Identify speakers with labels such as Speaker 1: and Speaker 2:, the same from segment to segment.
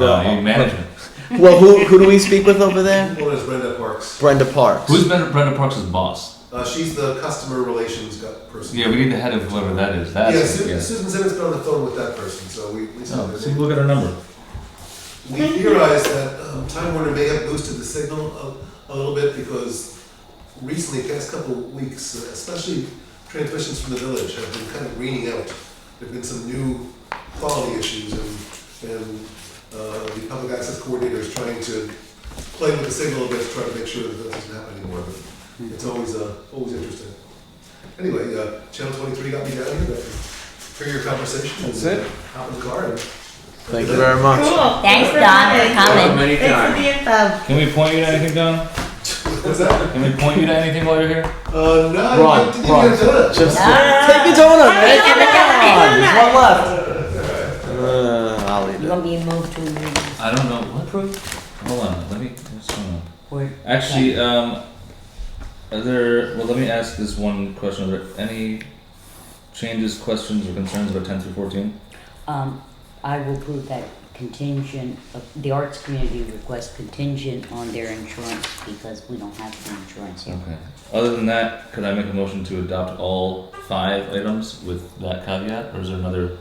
Speaker 1: Uh, you management.
Speaker 2: Well, who, who do we speak with over there?
Speaker 3: One is Brenda Parks.
Speaker 2: Brenda Parks.
Speaker 1: Who's Brenda, Brenda Parks' boss?
Speaker 3: Uh, she's the customer relations gu- person.
Speaker 1: Yeah, we need the head of whoever that is.
Speaker 3: Yeah,
Speaker 1: That's
Speaker 3: Su-
Speaker 1: yeah.
Speaker 3: Susan Simmons been on the phone with that person, so we we,
Speaker 1: Oh,
Speaker 3: said
Speaker 1: see,
Speaker 3: that
Speaker 1: look at her number.
Speaker 3: we theorized that um, Time Warner may have boosted the signal a, a little bit because recently, the past couple of weeks, uh, especially transmissions from the village have been kind of greening out. There've been some new quality issues, and and uh, the public access coordinator is trying to play with the signal a bit to try to make sure that that doesn't happen anymore. But it's always uh, always interesting. Anyway, uh, Channel 23 got me down here. But for your conversation.
Speaker 4: That's it.
Speaker 3: Out in the car. and-
Speaker 2: Thank you very much.
Speaker 5: Cool.
Speaker 6: Thanks, Don, for coming.
Speaker 4: Many
Speaker 5: Thanks for
Speaker 4: times.
Speaker 5: the info.
Speaker 1: Can we point you to anything, Don?
Speaker 3: What's that?
Speaker 1: Can we point you to anything while you're here?
Speaker 3: Uh, no,
Speaker 2: Ron,
Speaker 3: I didn't
Speaker 2: Ron,
Speaker 3: even do it.
Speaker 2: Just
Speaker 6: Ah.
Speaker 2: take your donut, man.
Speaker 6: Have
Speaker 2: Come
Speaker 6: a donut.
Speaker 2: on, there's one left. Uh, I'll eat
Speaker 6: You're
Speaker 2: it.
Speaker 6: gonna be moved to a meeting.
Speaker 1: I don't know. What proof? Hold on. Let me. What's going on?
Speaker 6: Where-
Speaker 1: Actually, um, are there? Well, let me ask this one question. Are there any changes, questions, or concerns about ten through fourteen?
Speaker 6: Um, I will prove that contingent, of- the arts community requests contingent on their insurance because we don't have the insurance here.
Speaker 1: Okay. Other than that, could I make a motion to adopt all five items with that caveat, or is there another?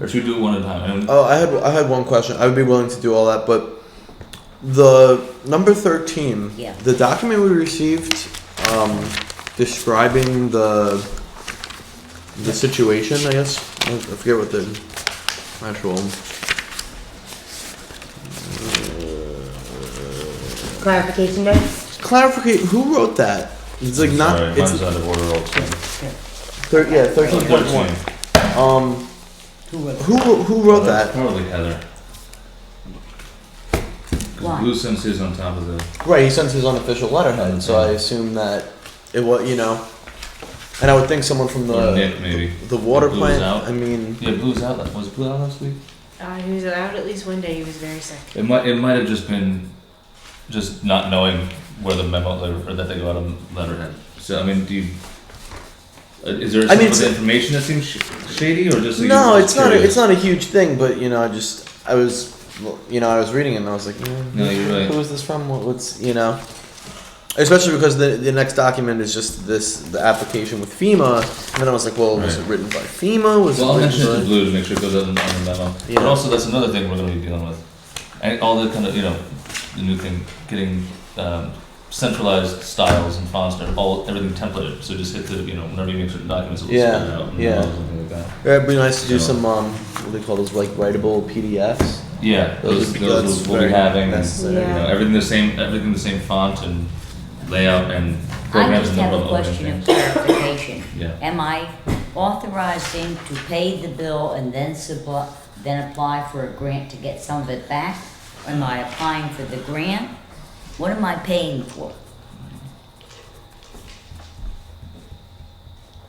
Speaker 1: Or should we do it one at a time? I mean,
Speaker 2: Oh, I had I had one question. I would be willing to do all that, but the number thirteen,
Speaker 6: Yeah.
Speaker 2: the document we received um, describing the the situation. I guess I I forget what the actual.
Speaker 5: Clarification notes?
Speaker 2: Clarify who wrote that? It's like not.
Speaker 1: Sorry,
Speaker 2: it's
Speaker 1: mine's out of order. Also.
Speaker 2: thir- yeah, thirteen point one. Um,
Speaker 6: Who wrote
Speaker 2: who who wrote that?
Speaker 1: Probably Heather.
Speaker 6: Why?
Speaker 1: Because Blue Sims is on top of the.
Speaker 2: Right, he sends his unofficial letterhead, so I assume that it was you know, and I would think someone from
Speaker 1: Or
Speaker 2: the
Speaker 1: Nick, maybe.
Speaker 2: the water
Speaker 1: Blues
Speaker 2: plant.
Speaker 1: out.
Speaker 2: I mean,
Speaker 1: Yeah, Blue's out. la- Was Blue out last week?
Speaker 7: Uh, he was out at least one day. He was very sick.
Speaker 1: It might. It might have just been, just not knowing where the memo or that they go out on letterhead. So I mean, do you? uh, Is there
Speaker 2: I
Speaker 1: some
Speaker 2: mean,
Speaker 1: of
Speaker 2: it's-
Speaker 1: the information that seems sh- shady, or just? that you're
Speaker 2: no,
Speaker 1: just
Speaker 2: it's not a,
Speaker 1: curious?
Speaker 2: it's not a huge thing, but you know, I just I was you know I was reading it and I was like, mm,
Speaker 1: No, you're right.
Speaker 2: who is this from? What, what's you know, especially because the the next document is just this the application with FEMA, and then I was like, well, was it
Speaker 1: Right.
Speaker 2: written by FEMA? Was
Speaker 1: Well, I'll
Speaker 2: it
Speaker 1: mention it to
Speaker 2: written by?
Speaker 1: Blue to make sure it goes out on on the memo.
Speaker 2: Yeah.
Speaker 1: But also, that's another thing we're going to be dealing with, and all the kind of you know, the new thing, getting um, centralized styles and fonts, and all everything templated. So just hit the you know whenever you make certain documents, it will
Speaker 2: Yeah,
Speaker 1: spit it out. and
Speaker 2: yeah.
Speaker 1: Something like that.
Speaker 2: Yeah, It'd be nice to do
Speaker 1: So-
Speaker 2: some um, what do they call those like writable PDFs.
Speaker 1: Yeah,
Speaker 2: Those
Speaker 1: those,
Speaker 2: would be-
Speaker 1: those
Speaker 2: that's
Speaker 1: we'll be
Speaker 2: very
Speaker 1: having. and,
Speaker 2: necessary.
Speaker 1: You know,
Speaker 7: Yeah.
Speaker 1: everything the same, everything the same font and layout and
Speaker 6: I
Speaker 1: programs
Speaker 6: just
Speaker 1: and all
Speaker 6: have a
Speaker 1: that
Speaker 6: question of
Speaker 1: things.
Speaker 6: clarification.
Speaker 1: Yeah.
Speaker 6: Am I authorizing to pay the bill and then supply, then apply for a grant to get some of it back? Am I applying for the grant? What am I paying for?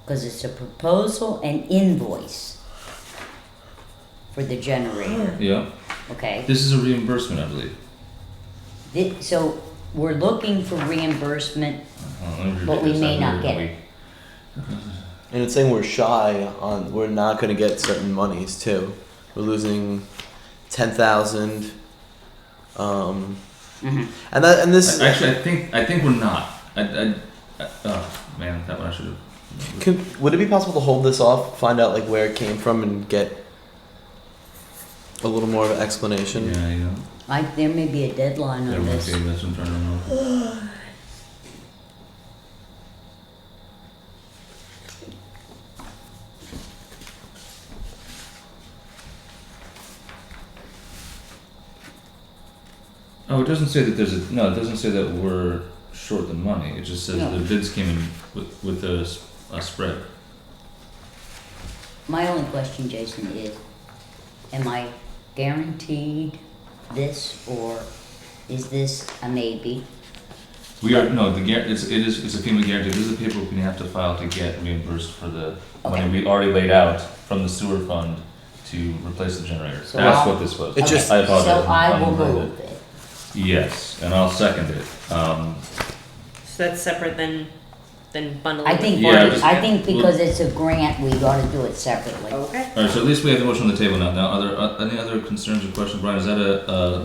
Speaker 6: Cause it's a proposal and invoice for the generator,
Speaker 1: Yeah,
Speaker 6: okay?
Speaker 1: this is a reimbursement, I believe.
Speaker 6: Thi- So we're looking for reimbursement,
Speaker 1: Uh, let me read
Speaker 6: But we
Speaker 1: this.
Speaker 6: may
Speaker 1: I
Speaker 6: not
Speaker 1: read
Speaker 6: get
Speaker 1: week.
Speaker 6: it.
Speaker 2: And it's saying we're shy on we're not gonna get certain monies too. We're losing ten thousand. Um
Speaker 6: Mhm.
Speaker 2: and that and this
Speaker 1: I- Actually, I think I think we're not. I, I, I oh man, that one I should have.
Speaker 2: could, would it be possible to hold this off, find out like where it came from and get a little more of an explanation?
Speaker 1: Yeah, you know,
Speaker 6: like, there may be a deadline
Speaker 1: that
Speaker 6: on
Speaker 1: one
Speaker 6: this.
Speaker 1: gave us some turnaround. Oh, it doesn't say that there's a no. It doesn't say that we're short the money. It just says
Speaker 6: No.
Speaker 1: the bids came in with with a, s- a spread.
Speaker 6: My only question, Jason, is am I guaranteed this or is this a maybe?
Speaker 1: We are no the guar- it's it is it's a FEMA guarantee. This is the paperwork we have to file to get reimbursed for the money we already laid out from the sewer fund to replace the generator.
Speaker 6: So
Speaker 1: That's
Speaker 6: I'll-
Speaker 1: what this was.
Speaker 2: It just-
Speaker 1: I apologize.
Speaker 6: So I will
Speaker 1: I'm-
Speaker 6: move it.
Speaker 1: Yes, and I'll second it. Um,
Speaker 7: So that's separate than than bundling.
Speaker 6: I think,
Speaker 1: Yeah, just-
Speaker 6: I think because it's a grant, we gotta do it separately.
Speaker 7: Okay.
Speaker 1: All right, so at least we have the motion on the table now. Now, are there uh, any other concerns or questions? Brian, is that a, uh,